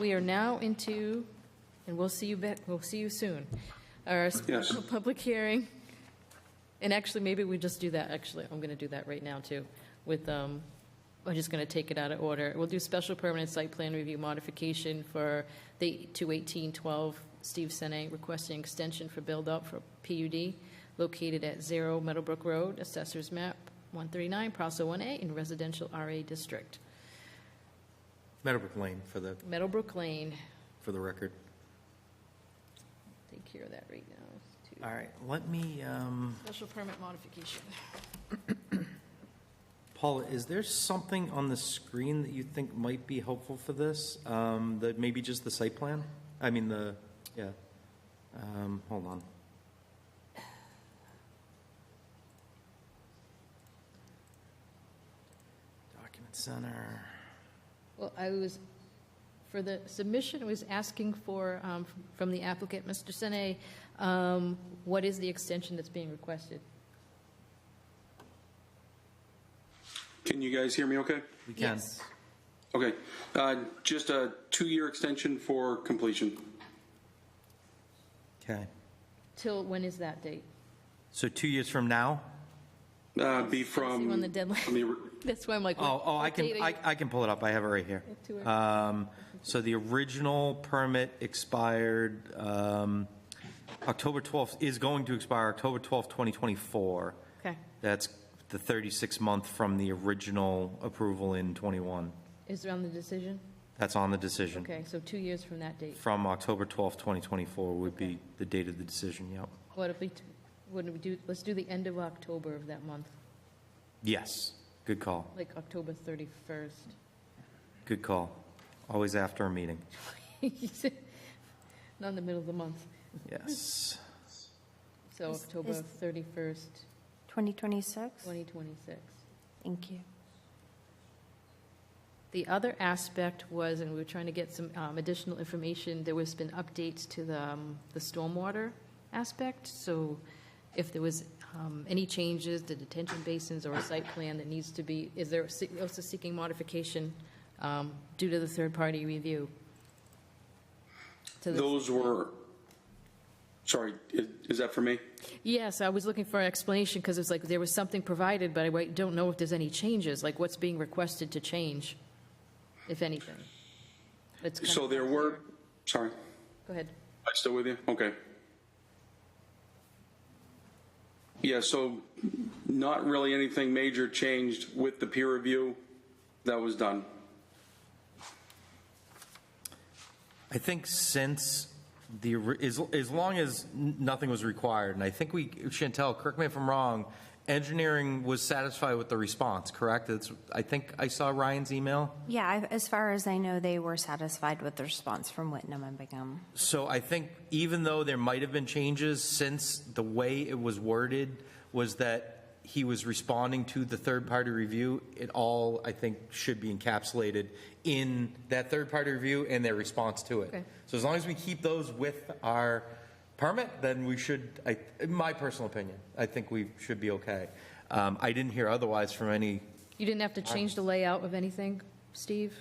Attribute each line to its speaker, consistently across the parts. Speaker 1: We are now into, and we'll see you back, we'll see you soon, our special public hearing. And actually, maybe we just do that, actually, I'm going to do that right now, too, with, um, I'm just going to take it out of order. We'll do special permanent site plan review modification for the 21812 Steve Sene requesting extension for build-up for PUD located at 0 Meadowbrook Road, Assessor's Map 139, Parcel 1A in Residential RA District,
Speaker 2: Meadowbrook Lane for the,
Speaker 1: Meadowbrook Lane.
Speaker 2: for the record.
Speaker 1: Take care of that right now. too.
Speaker 2: All right, let me, um,
Speaker 1: Special permit modification.
Speaker 2: Paula, is there something on the screen that you think might be helpful for this? Um, That maybe just the site plan? I mean, the, yeah. Um, Hold on. Document Center.
Speaker 1: Well, I was, for the submission, I was asking for, um, from the applicant, Mr. Sene, um, what is the extension that's being requested?
Speaker 3: Can you guys hear me okay?
Speaker 2: We can.
Speaker 1: Yes.
Speaker 3: Okay. Uh, just a two year extension for completion.
Speaker 2: Okay.
Speaker 1: Till, when is that date?
Speaker 2: So two years from now?
Speaker 3: Uh, be
Speaker 1: See when the
Speaker 3: from. from
Speaker 1: deadline,
Speaker 3: the-
Speaker 1: that's why I'm like.
Speaker 2: Oh,
Speaker 1: what-
Speaker 2: oh, I
Speaker 1: what date
Speaker 2: can,
Speaker 1: are
Speaker 2: I,
Speaker 1: you-
Speaker 2: I can pull it up. I have it right here.
Speaker 1: Yeah, two or-
Speaker 2: Um, so the original permit expired, um, October 12th, is going to expire October 12th, 2024.
Speaker 1: Okay.
Speaker 2: That's the 36 month from the original approval in 21.
Speaker 1: Is it on the decision?
Speaker 2: That's on the decision.
Speaker 1: Okay, so two years from that date.
Speaker 2: From October 12th, 2024 would
Speaker 1: Okay.
Speaker 2: be the date of the decision, yep.
Speaker 1: What if we, t- what do we do, let's do the end of October of that month,
Speaker 2: Yes, good call,
Speaker 1: like October 31st.
Speaker 2: good call. Always after a meeting.
Speaker 1: Not in the middle of the month,
Speaker 2: Yes.
Speaker 1: so
Speaker 4: Is-
Speaker 1: October
Speaker 4: is-
Speaker 1: 31st,
Speaker 4: 2026?
Speaker 1: 2026.
Speaker 4: Thank you.
Speaker 1: The other aspect was, and we were trying to get some um, additional information, there was been updates to the, um, the stormwater aspect, so if there was um, any changes to detention basins or a site plan that needs to be, is there se- also seeking modification um, due to the third-party review? To the-
Speaker 3: Those were. Sorry, is, is that for me?
Speaker 1: Yes, I was looking for an explanation because it's like there was something provided, but I don't know if there's any changes, like what's being requested to change, if anything. It's kind
Speaker 3: So
Speaker 1: of
Speaker 3: there were. Sorry,
Speaker 1: Go ahead.
Speaker 3: I still with you? Okay. Yeah, so not really anything major changed with the peer review that was done.
Speaker 2: I think since the, as, as long as n- nothing was required, and I think we, Chantel, correct me if I'm wrong, engineering was satisfied with the response, correct? That's, I think I saw Ryan's email.
Speaker 4: Yeah, I- as far as I know, they were satisfied with the response from Whitnam and Bingham.
Speaker 2: So I think even though there might have been changes, since the way it was worded was that he was responding to the third-party review, it all, I think, should be encapsulated in that third-party review and their response to
Speaker 1: Okay.
Speaker 2: it. So as long as we keep those with our permit, then we should, I, in my personal opinion, I think we should be okay. Um, I didn't hear otherwise from any,
Speaker 1: You didn't have to change the layout of anything, Steve?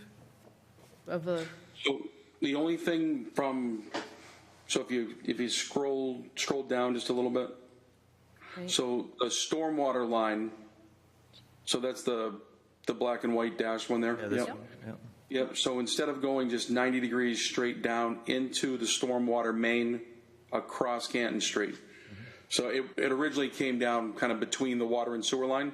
Speaker 1: Of the,
Speaker 3: So the only thing from, so if you, if you scroll, scroll down just a little bit.
Speaker 1: Right.
Speaker 3: So the stormwater line, so that's the, the black and white dash one there.
Speaker 2: Yeah, this
Speaker 3: Yep.
Speaker 2: one, yeah.
Speaker 3: Yep, so instead of going just 90 degrees straight down into the stormwater main across Canton Street.
Speaker 2: Mm-hmm.
Speaker 3: So it, it originally came down kind of between the water and sewer line.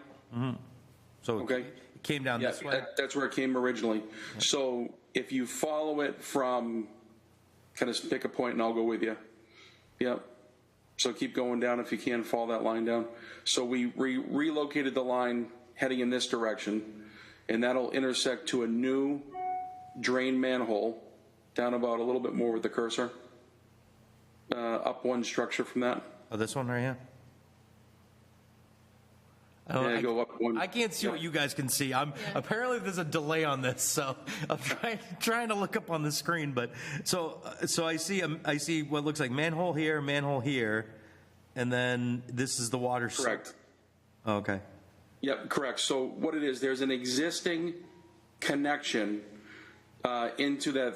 Speaker 2: so
Speaker 3: Okay.
Speaker 2: it came down
Speaker 3: Yeah,
Speaker 2: this way.
Speaker 3: that- that's where it came originally. So if you follow it from, kind of pick a point and I'll go with you. Yep. So keep going down if you can, follow that line down. So we re- relocated the line heading in this direction, and that'll intersect to a new drain manhole down about a little bit more with the cursor, uh, up one structure from that.
Speaker 2: Oh, this one right here?
Speaker 3: Yeah, go up one.
Speaker 2: I can't see what you guys can see. I'm apparently there's a delay on this, so I'm trying, trying to look up on the screen. But so uh, so I see um, I see what looks like manhole here, manhole here, and then this is the water. s-
Speaker 3: Correct.
Speaker 2: Oh, okay.
Speaker 3: Yep, correct. So what it is, there's an existing connection uh, into that